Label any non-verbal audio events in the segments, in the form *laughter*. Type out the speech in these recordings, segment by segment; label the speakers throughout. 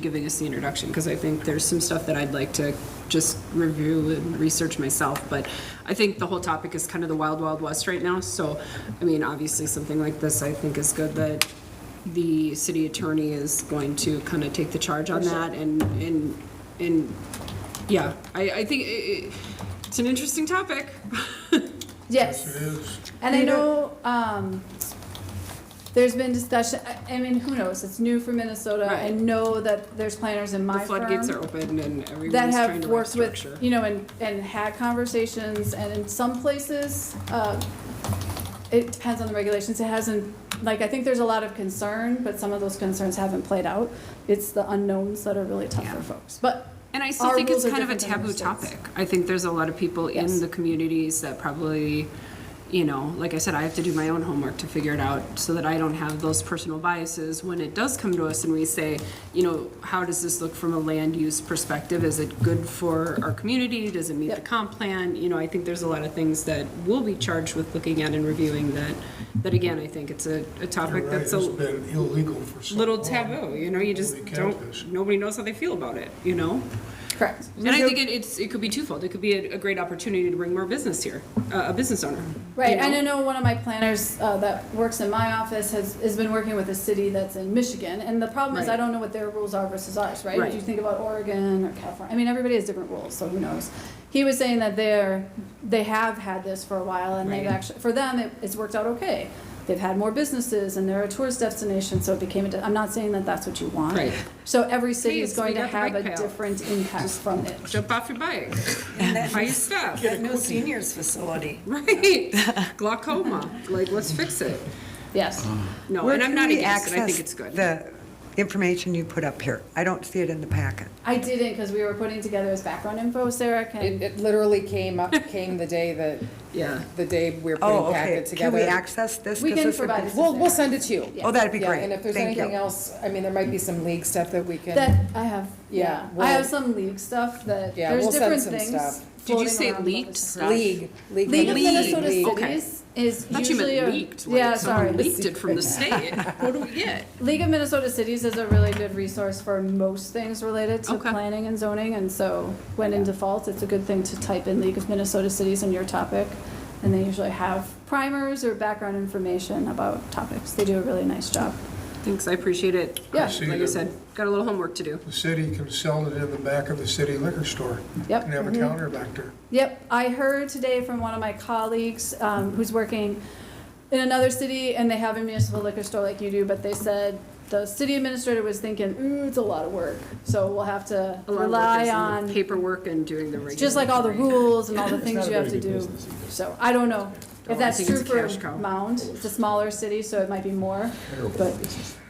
Speaker 1: giving us the introduction, because I think there's some stuff that I'd like to just review and research myself, but I think the whole topic is kind of the wild, wild west right now, so, I mean, obviously, something like this, I think is good that the city attorney is going to kind of take the charge on that, and, and, and, yeah, I, I think i- i it's an interesting topic.
Speaker 2: Yes. And I know, um, there's been discussion, I, I mean, who knows, it's new for Minnesota. I
Speaker 1: Right.
Speaker 2: know that there's planners in
Speaker 1: The
Speaker 2: my firm
Speaker 1: floodgates are open and
Speaker 2: that
Speaker 1: everyone's trying
Speaker 2: have
Speaker 1: to work
Speaker 2: worked with,
Speaker 1: structure.
Speaker 2: you know, and, and had conversations, and in some places, uh, it depends on the regulations, it hasn't, like, I think there's a lot of concern, but some of those concerns haven't played out. It's the unknowns that are really tough for
Speaker 1: Yeah.
Speaker 2: folks, but
Speaker 1: And I still
Speaker 2: Our
Speaker 1: think it's
Speaker 2: rules are
Speaker 1: kind of a
Speaker 2: different
Speaker 1: taboo
Speaker 2: than other states.
Speaker 1: topic. I think there's a lot of people in
Speaker 2: Yes.
Speaker 1: the communities that probably, you know, like I said, I have to do my own homework to figure it out so that I don't have those personal biases when it does come to us and we say, you know, how does this look from a land use perspective? Is it good for our community? Does it meet the
Speaker 2: Yep.
Speaker 1: comp plan? You know, I think there's a lot of things that we'll be charged with looking at and reviewing that, that again, I think it's a, a
Speaker 3: You're
Speaker 1: topic
Speaker 3: right,
Speaker 1: that's
Speaker 3: it's
Speaker 1: a
Speaker 3: been illegal for so long.
Speaker 1: little taboo, you know, you just
Speaker 3: Holy catfish.
Speaker 1: don't, nobody knows how they feel about it, you know?
Speaker 2: correct.
Speaker 1: And I think it, it's, it could be twofold. It could be a, a great opportunity to bring more business here, uh, a business owner.
Speaker 2: Right,
Speaker 1: you know?
Speaker 2: and I know one of my planners uh, that works in my office has, has been working with a city that's in Michigan, and the problem is I
Speaker 1: Right.
Speaker 2: don't know what their rules are versus ours, right? If you
Speaker 1: Right.
Speaker 2: think about Oregon or California, I mean, everybody has different rules, so who knows? He was saying that they're, they have had this for a while, and they've
Speaker 1: Right.
Speaker 2: actually, for them, it, it's worked out okay. They've had more businesses, and they're a tourist destination, so it became a, de- I'm not saying that that's what you want.
Speaker 1: Right.
Speaker 2: So every city is
Speaker 1: Please,
Speaker 2: going
Speaker 1: we
Speaker 2: to
Speaker 1: got the
Speaker 2: have a
Speaker 1: bike path.
Speaker 2: different impact from
Speaker 1: *laughs*
Speaker 2: it.
Speaker 1: Jump off your
Speaker 2: *laughs*
Speaker 1: bike,
Speaker 4: And that
Speaker 1: buy
Speaker 4: new-
Speaker 1: your stuff,
Speaker 4: that new seniors facility.
Speaker 1: right? Glaucoma, like, let's fix it.
Speaker 2: Yes.
Speaker 1: No,
Speaker 4: Where
Speaker 1: and I'm
Speaker 4: can
Speaker 1: not
Speaker 4: we
Speaker 1: against it. I think
Speaker 4: access
Speaker 1: it's good.
Speaker 4: The information you put up here, I don't see it in the packet.
Speaker 2: I didn't, because we were putting together his background info, Sarah can.
Speaker 5: It, it literally
Speaker 4: *laughs*
Speaker 5: came up, came the day that,
Speaker 1: Yeah.
Speaker 5: the day we were
Speaker 4: Oh,
Speaker 5: putting
Speaker 4: okay.
Speaker 5: packet
Speaker 4: Can
Speaker 5: together.
Speaker 4: we access this?
Speaker 2: We
Speaker 4: 'Cause
Speaker 2: can
Speaker 4: this would be-
Speaker 2: provide it.
Speaker 5: We'll, we'll send it to you.
Speaker 4: Oh, that'd be
Speaker 5: Yeah,
Speaker 4: great.
Speaker 5: and if there's
Speaker 4: Thank you.
Speaker 5: anything else, I mean, there might be some league stuff that we can,
Speaker 2: That I have,
Speaker 5: Yeah,
Speaker 2: yeah. I
Speaker 5: well-
Speaker 2: have some league stuff that,
Speaker 5: Yeah,
Speaker 2: there's
Speaker 5: we'll send
Speaker 2: different
Speaker 5: some
Speaker 2: things.
Speaker 5: stuff.
Speaker 1: Did you
Speaker 2: floating
Speaker 1: say
Speaker 2: around about
Speaker 1: leagued
Speaker 2: this.
Speaker 1: stuff?
Speaker 5: league, league.
Speaker 2: League of
Speaker 5: League.
Speaker 2: Minnesota
Speaker 5: League.
Speaker 2: Cities is
Speaker 1: I thought you
Speaker 2: usually
Speaker 1: meant
Speaker 2: a.
Speaker 1: leaked,
Speaker 2: Yeah,
Speaker 1: like
Speaker 2: sorry.
Speaker 1: someone leaked it from the state. What do we get?
Speaker 2: League of Minnesota Cities is a really good resource for most things related to
Speaker 1: Okay.
Speaker 2: planning and zoning. And so when in default, it's a good thing to type in League of Minnesota Cities in your topic. And they usually have primers or background information about topics. They do a really nice job.
Speaker 1: Thanks, I appreciate it.
Speaker 2: Yeah.
Speaker 1: Like I said, got a little homework to do.
Speaker 3: The city can sell it in the back of the city liquor store
Speaker 2: Yep.
Speaker 3: and have
Speaker 4: Mm-hmm.
Speaker 3: a counter back there.
Speaker 2: Yep, I heard today from one of my colleagues um, who's working in another city, and they have a municipal liquor store like you do, but they said the city administrator was thinking, ooh, it's a lot of work, so we'll have to
Speaker 1: A lot of work
Speaker 2: rely
Speaker 1: is in the
Speaker 2: on,
Speaker 1: Paperwork and doing the regular.
Speaker 2: just like all the rules and all the things you have to do. So I don't know
Speaker 1: Oh, I
Speaker 2: if that's
Speaker 1: think
Speaker 2: true
Speaker 1: it's a
Speaker 2: for
Speaker 1: cash cow.
Speaker 2: Mound, it's a smaller city, so it might be more, but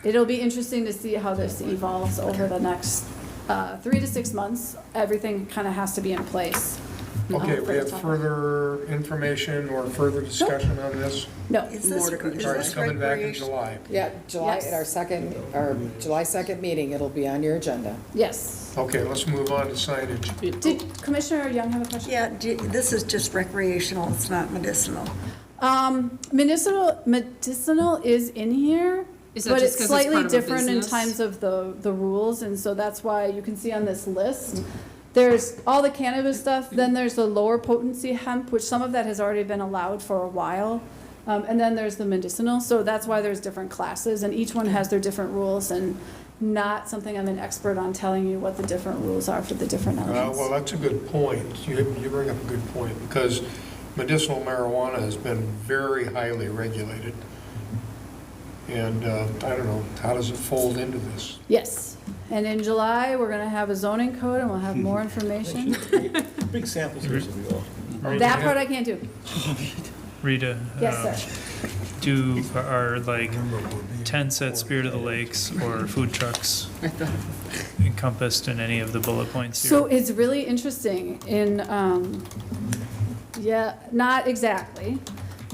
Speaker 2: it'll be interesting to see how this evolves over the next uh, three to six months. Everything kind of has to be in place. uh,
Speaker 3: Okay,
Speaker 2: for
Speaker 3: we
Speaker 2: the
Speaker 3: have
Speaker 2: topic.
Speaker 3: further information or further discussion on this.
Speaker 2: No.
Speaker 4: Is
Speaker 1: More
Speaker 4: this,
Speaker 1: to come.
Speaker 4: is
Speaker 3: All right, it's
Speaker 4: this
Speaker 3: coming back in
Speaker 4: recreation?
Speaker 3: July.
Speaker 5: Yeah, July,
Speaker 2: Yes.
Speaker 5: at our second, our July second meeting, it'll be on your agenda.
Speaker 2: Yes.
Speaker 3: Okay, let's move on to signage.
Speaker 2: Did Commissioner Young have a question?
Speaker 4: Yeah, do- this is just recreational, it's not medicinal.
Speaker 2: Um, medicinal, medicinal is in here,
Speaker 1: Is that
Speaker 2: but
Speaker 1: just
Speaker 2: it's
Speaker 1: 'cause it's part
Speaker 2: slightly
Speaker 1: of a
Speaker 2: different in
Speaker 1: business?
Speaker 2: times of the, the rules, and so that's why you can see on this list, there's all the cannabis stuff, then there's the lower potency hemp, which some of that has already been allowed for a while. Um, and then there's the medicinal, so that's why there's different classes, and each one has their different rules, and not something I'm an expert on telling you what the different rules are for the different
Speaker 3: Uh,
Speaker 2: elements.
Speaker 3: Well, that's a good point. You you bring up a good point because medicinal marijuana has been very highly regulated. And uh, I don't know, how does it fold into this?
Speaker 2: Yes, and in July, we're gonna have a zoning code and we'll have more information.
Speaker 6: Big samples here, so we all.
Speaker 2: That part I can't do.
Speaker 7: Rita, uh,
Speaker 2: Yes, sir.
Speaker 7: do are like tents at Spirit of the Lakes or food trucks encompassed in any of the bullet points here?
Speaker 2: So it's really interesting in, um, yeah, not exactly,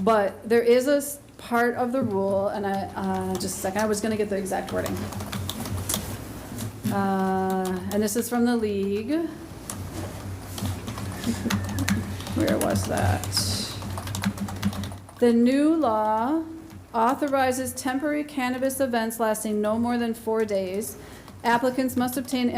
Speaker 2: but there is a s- part of the rule, and I, uh, just a second, I was gonna get the exact wording. Uh, and this is from the league. Where was that? The new law authorizes temporary cannabis events lasting no more than four days Applicants must obtain